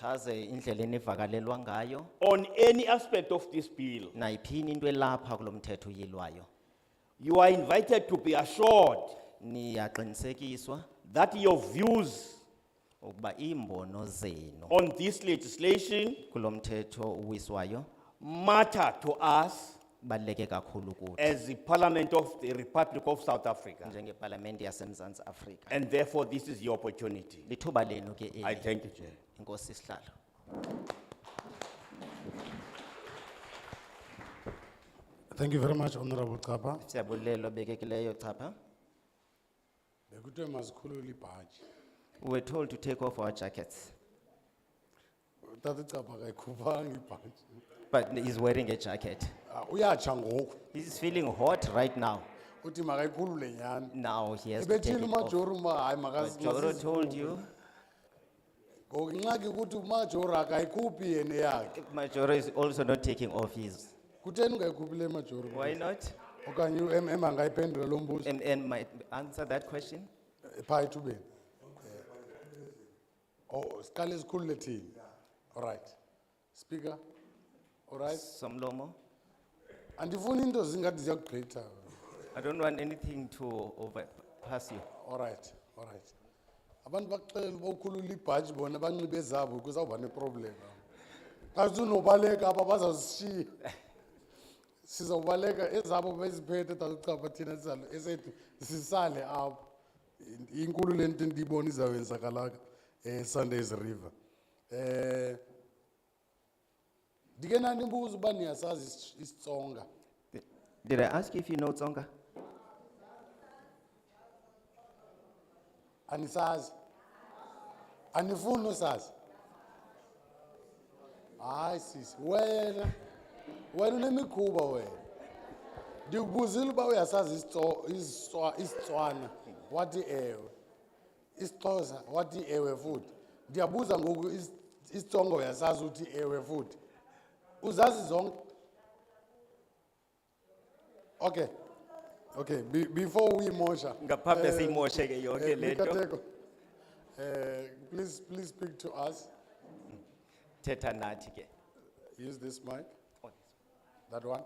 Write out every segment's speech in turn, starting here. chaze indlela enivakalelwa ngayo on any aspect of this bill. nayiphini into elapha kulo mthetho uyilwayo You are invited to be assured niyaqinisekiswa that your views ukuba iimbono zenu on this legislation kulo mthetho uwiswayo matter to us baleke kakhulu kuthi as the Parliament of the Republic of South Africa. njengepalamente yasemzantsi afrika And therefore, this is your opportunity. lithuba lenu ke I eli thank you, Chair. inkosi sihlalo Thank you very much Honorable Kapa. siyabulelwa bekekileyo chapha Bekutwe maskulu libhaji. we were told to take off our jackets Tati Kapa kaikubangi libhaji. but he's wearing a jacket Uya changoku. he's feeling hot right now Uti makaikulu lenyani. now he has to take Ebetini it off majoru ma, ay makas. but joro told you Ngaki kuti majoru akaikupi yene yake. Majoro is also not taking off his. Kuteni ungaikupi le majoru. Why not? Okanyu em em angaipendula lo mbuzo. And, and might answer that question? Phaa ethubeni. Eh. Oh, skali esikhulu lethini. All right. Speaker. All right. Somlomo? Andifuni into zingathi ziyakugqitha. I don't want anything to overpass you. All right, all right. Abantu bakuxelela uba ukhulula ibhaji bona banxibe zabo kuzawuba neproblem. Xa sinobaleka apha bazawuzishiya. Sizawubaleka ezabo beziphethe talucapha thina sizalo esethu sisale apha. In- Inkulu le nto ndiyibona izawuyenzakalaka eh Sundays River. Eh Ndike ndimbuza uba niyasazi isi- isiTsonga. Did I ask you if you know Tsonga? Anisazi. Anifuni usazi. Hayi sisi, wena. Wena unemikhuba wena. Ndikubuzile uba uyasazi isiTso- isiSwa- isiTswana, wathi ewe. IsiXhosa, wathi ewe futhi. Ndiyabuza ngoku isi- isiTsonga uyasazi uthi ewe futhi. Uzazi zonke? Okay. Okay, be, before we motion. Ngaphambi siyimoshe ke uh, yonke le nto. Eh, please, please speak to us, Teta nathi ke. use this mic, Oh, that one.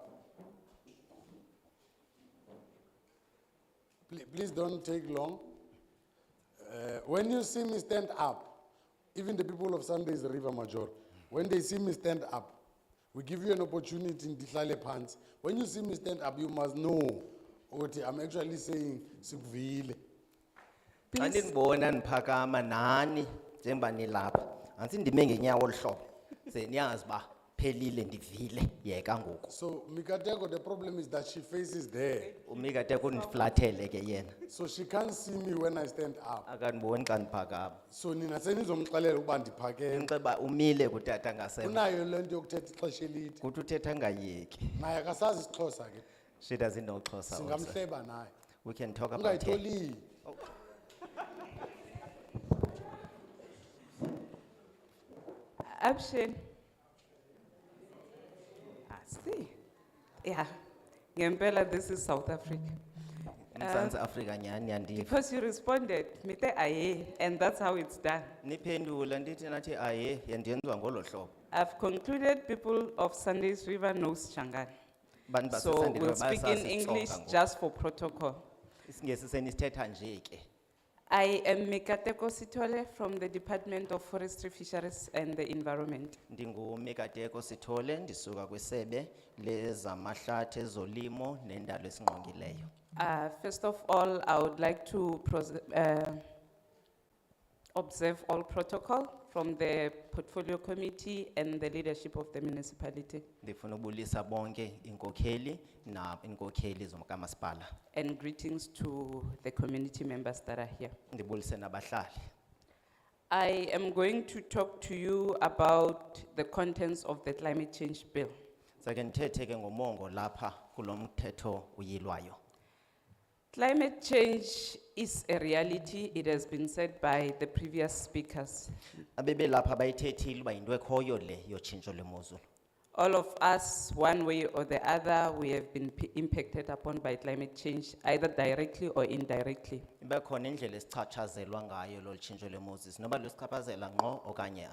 Please, please don't take long. Eh, when you see me stand up, even the people of Sundays River Major, when they see me stand up, we give you an opportunity in Ditlale Pants. When you see me stand up, you must know what I'm actually saying, Sikvile. Xa Please. ndinibona niphakama nani njengoba nilapha. Antsi ndime ngenyawo olu hlobo. Ze niyazi uba phelile ndivile yeka ngoku. So Mikateko, the problem is that she faces there, Umikateko undiflathele ke yena. so she can't see me when I stand up. Akandiboni xa ndiphakama. So nina senizomxelela ukuba ndiphakeme. Ndinxiba umile kutata ngasemva. Unayo le nto yokuthetha ixesha elide. Kuthi uthetha ngayeki. Naye akasazi isiXhosa ke. She doesn't know Xhosa also. Singamhleba naye. We can talk about her. Ungayitholi. Option. I see. Yeah. Ngempela, this is South Africa. Mzansi Afrika nyani andiva. Because you responded, mite aye, and that's how it's done. Niphendula ndithi nathi aye yandenzwa ngolo hlobo. I've concluded people of Sundays River knows Changan. Bantu So baseSandile we'll speak in bayasazi English isiXhosa ngoku. just for protocol. Isingesi senisithetha nje ke. I am Mikateko Sitole from the Department of Forestry, Fisheries and the Environment. Ndingumekateko Sithole ndisuka kwisebe lezamahlathi ezolimo nendalo esingqongileyo. Uh, First of all, I would like to pros- uh, observe all protocol from the portfolio committee and the leadership of the municipality Ndifuna ubulisa bonke inkokheli na inkokheli zomkamasipala. and greetings to the community members that are here. Ndibulise nabahlali. I am going to talk to you about the contents of the climate change bill. Sake ndithethe ke ngomongo lapha kulo mthetho uyilwayo. Climate change is a reality, it has been said by the previous speakers. Abebe lapha bayithethile uba yinto ekhoyo le yotshintsho lwemozulu. All of us, one way or the other, we have been p- impacted upon by climate change, either directly or indirectly. Iba khona indlela esichatshazelwa ngayo lolu tshintsho lwemozulu. Noba lusichaphazela ngqo okanye